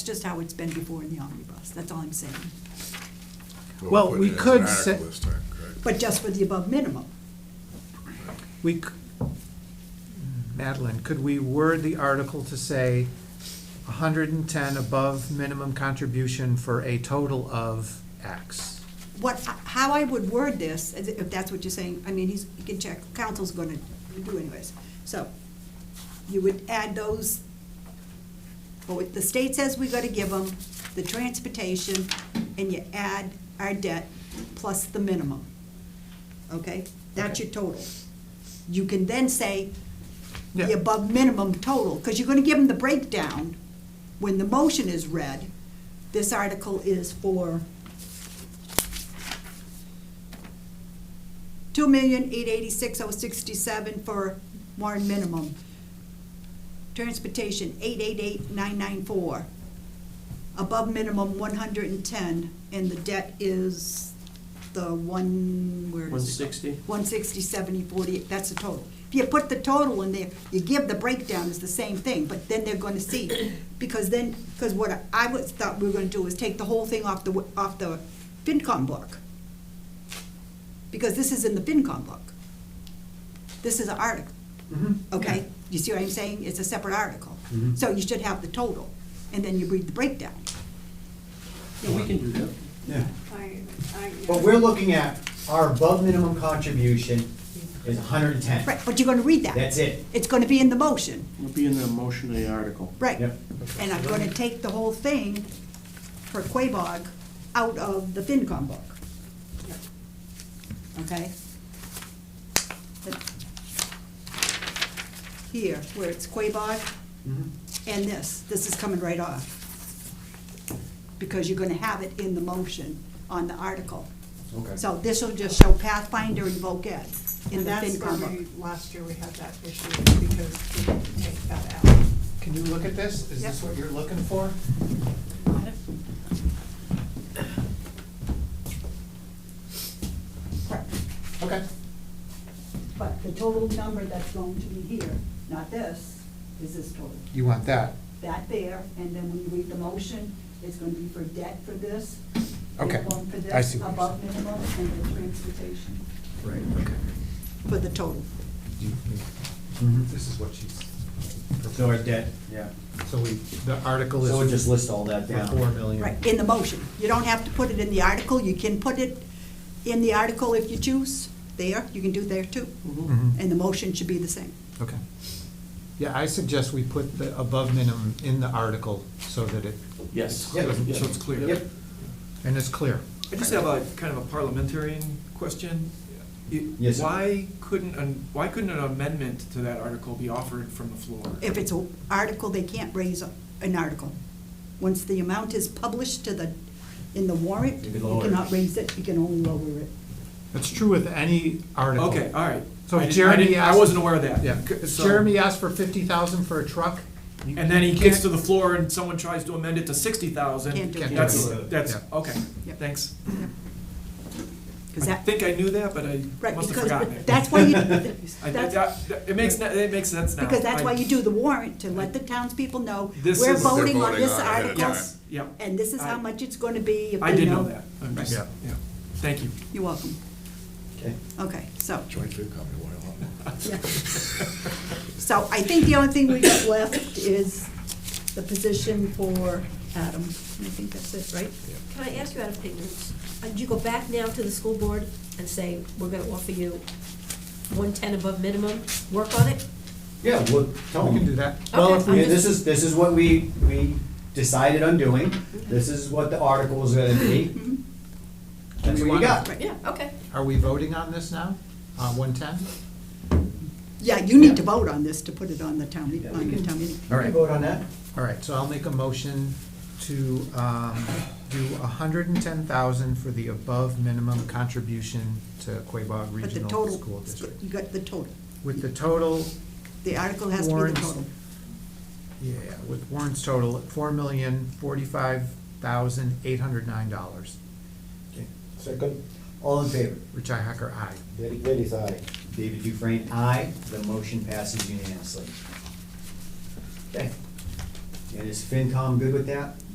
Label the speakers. Speaker 1: It's just how it's been before in the omnibus, that's all I'm saying.
Speaker 2: Well,
Speaker 3: put it as
Speaker 2: we
Speaker 3: an
Speaker 2: could
Speaker 3: article
Speaker 2: say-
Speaker 3: this time, correct?
Speaker 1: But just for the above minimum.
Speaker 2: We, c- Madeline, could we word the article to say hundred and ten above minimum contribution for a total of X?
Speaker 1: What, how I would word this, as- if that's what you're saying, I mean, he's, he can check, council's gonna do anyways. So, you would add those, well, what the state says we gotta give them, the transportation, and you add our debt plus the minimum. Okay? That's
Speaker 2: Okay.
Speaker 1: your total. You can then say the
Speaker 2: Yeah.
Speaker 1: above minimum total, because you're gonna give them the breakdown when the motion is read. This article is for two million, eight eighty-six, oh sixty-seven for Warren minimum. Transportation, eight eight eight, nine nine four. Above minimum, one hundred and ten, and the debt is the one, where is it?
Speaker 4: 160?
Speaker 1: One sixty, seventy, forty, that's the total. If you put the total in there, you give the breakdown, it's the same thing, but then they're gonna see. Because then, because what I- I was, thought we were gonna do is take the whole thing off the, w- off the FinCom book because this is in the FinCom book. This is an article,
Speaker 5: Mm-hmm.
Speaker 1: okay? You see what I'm saying? It's a separate article.
Speaker 4: Mhm.
Speaker 1: So you should have the total, and then you read the breakdown.
Speaker 4: Yeah, we can do that.
Speaker 5: Yeah.
Speaker 6: I, I.
Speaker 5: What we're looking at, our above minimum contribution is hundred and ten.
Speaker 1: Right, but you're gonna read that.
Speaker 5: That's it.
Speaker 1: It's gonna be in the motion,
Speaker 4: It'll be in the motion of the article.
Speaker 1: right?
Speaker 5: Yep.
Speaker 1: And I'm gonna take the whole thing for Quabog out of the FinCom book. Okay? But Here, where it's Quabog, and this, this is coming right off. Because you're gonna have it in the motion on the article.
Speaker 5: Okay.
Speaker 1: So this will just show Pathfinder and voc Ed in
Speaker 6: And
Speaker 1: the
Speaker 6: that's where
Speaker 1: FinCom
Speaker 6: we,
Speaker 1: book.
Speaker 6: last year we had that issue because we didn't take that out.
Speaker 2: Can you look at this? Is this
Speaker 1: Yep.
Speaker 2: what you're looking for?
Speaker 1: Correct.
Speaker 2: Okay.
Speaker 1: But the total number that's going to be here, not this, is this total.
Speaker 2: You want that?
Speaker 1: That there, and then when you read the motion, it's gonna be for debt for this,
Speaker 2: Okay.
Speaker 1: minimum for
Speaker 2: I
Speaker 1: this,
Speaker 2: see what you're
Speaker 1: above minimum, and the transportation.
Speaker 2: Right, okay.
Speaker 1: For the total.
Speaker 2: This is what she's.
Speaker 5: So our debt, yeah.
Speaker 2: So we, the article
Speaker 5: So it
Speaker 2: is
Speaker 5: just lists all that
Speaker 2: for
Speaker 5: down.
Speaker 2: four million.
Speaker 1: Right, in the motion. You don't have to put it in the article, you can put it in the article if you choose, there, you can do there too.
Speaker 2: Mhm.
Speaker 1: And the motion should be the same.
Speaker 2: Okay. Yeah, I suggest we put the above minimum in the article so that it,
Speaker 4: Yes.
Speaker 5: Yeah,
Speaker 4: Yeah.
Speaker 7: so it's clear.
Speaker 4: Yep.
Speaker 2: and it's clear.
Speaker 7: I just have a kind of a parliamentarian question. It-
Speaker 5: Yes, sir.
Speaker 7: Why couldn't, an- why couldn't an amendment to that article be offered from the floor?
Speaker 1: If it's an article, they can't raise an article. Once the amount is published to the, in the warrant,
Speaker 5: You
Speaker 1: you
Speaker 5: can lower it.
Speaker 1: cannot raise it, you can only lower it.
Speaker 2: That's true with any article.
Speaker 7: Okay, all right.
Speaker 2: So
Speaker 7: I didn't- I
Speaker 2: Jeremy
Speaker 7: didn't-
Speaker 2: asked-
Speaker 7: I wasn't aware of that.
Speaker 2: Yeah,
Speaker 7: C-
Speaker 2: if
Speaker 7: so-
Speaker 2: Jeremy asked for fifty thousand for a truck. you-
Speaker 7: And then he
Speaker 2: you
Speaker 7: gets to
Speaker 2: can't-
Speaker 7: the floor and someone tries to amend it to sixty thousand.
Speaker 1: Can't do it.
Speaker 7: That's,
Speaker 2: Can't do it.
Speaker 7: that's,
Speaker 2: Yeah.
Speaker 7: okay,
Speaker 1: Yep.
Speaker 7: thanks.
Speaker 1: 'Cause
Speaker 7: I
Speaker 1: that-
Speaker 7: think I knew that, but I
Speaker 1: Right,
Speaker 7: must have
Speaker 1: because
Speaker 7: forgotten it.
Speaker 1: that's why you,
Speaker 7: I-
Speaker 1: that's,
Speaker 7: that- that- It makes, ne- it makes sense now.
Speaker 1: because that's
Speaker 7: I-
Speaker 1: why you do the warrant, to let the townspeople know,
Speaker 7: This
Speaker 1: we're
Speaker 7: is-
Speaker 1: voting
Speaker 3: They're
Speaker 1: on
Speaker 3: voting
Speaker 1: this
Speaker 3: on it ahead of
Speaker 1: article,
Speaker 3: time.
Speaker 7: Yes, yep.
Speaker 1: and this is how
Speaker 7: I-
Speaker 1: much it's gonna be. if
Speaker 7: I
Speaker 1: we
Speaker 7: did know that. I'm just,
Speaker 2: Yeah.
Speaker 7: yeah. Thank you.
Speaker 1: You're welcome.
Speaker 5: Okay.
Speaker 1: Okay, so.
Speaker 3: Joint FinCom, you want a lot more.
Speaker 1: Yeah. So I think the only thing we got left is the position for Adam. And I think that's it, right?
Speaker 8: Can I ask you out of ignorance, uh, do you go back now to the school board and say, we're gonna offer you one-ten above minimum, work on it?
Speaker 5: Yeah, well, tell
Speaker 2: We can
Speaker 5: them.
Speaker 2: do that.
Speaker 8: Well, if
Speaker 5: I
Speaker 8: we-
Speaker 5: mean, this is, this is what we, we decided on doing.
Speaker 1: Mm-hmm.
Speaker 5: This is what the article is gonna be.
Speaker 1: Mhm.
Speaker 5: That's
Speaker 2: We
Speaker 5: what you
Speaker 2: wanna-
Speaker 5: got.
Speaker 8: Yeah, okay.
Speaker 2: Are we voting on this now, on one ten?
Speaker 1: Yeah, you need to vote on this to put it on the town, meet-
Speaker 5: Yeah, we
Speaker 1: on the
Speaker 5: can-
Speaker 1: town meeting.
Speaker 5: You can vote on that?
Speaker 2: All right, so I'll make a motion to um, do a hundred and ten thousand for the above minimum contribution to Quabog
Speaker 1: But the
Speaker 2: Regional School
Speaker 1: total,
Speaker 2: District.
Speaker 1: you got the total.
Speaker 2: With the total,
Speaker 1: The article has to be the
Speaker 2: Warrants.
Speaker 1: total.
Speaker 2: yeah, with Warren's total, four million, forty-five thousand, eight hundred nine dollars.
Speaker 5: Second. All in favor?
Speaker 2: Richi Hacker, aye.
Speaker 5: Derek Bailey's aye. David Dufresne, aye. The motion passes unanimously. Okay. And is FinCom good with that?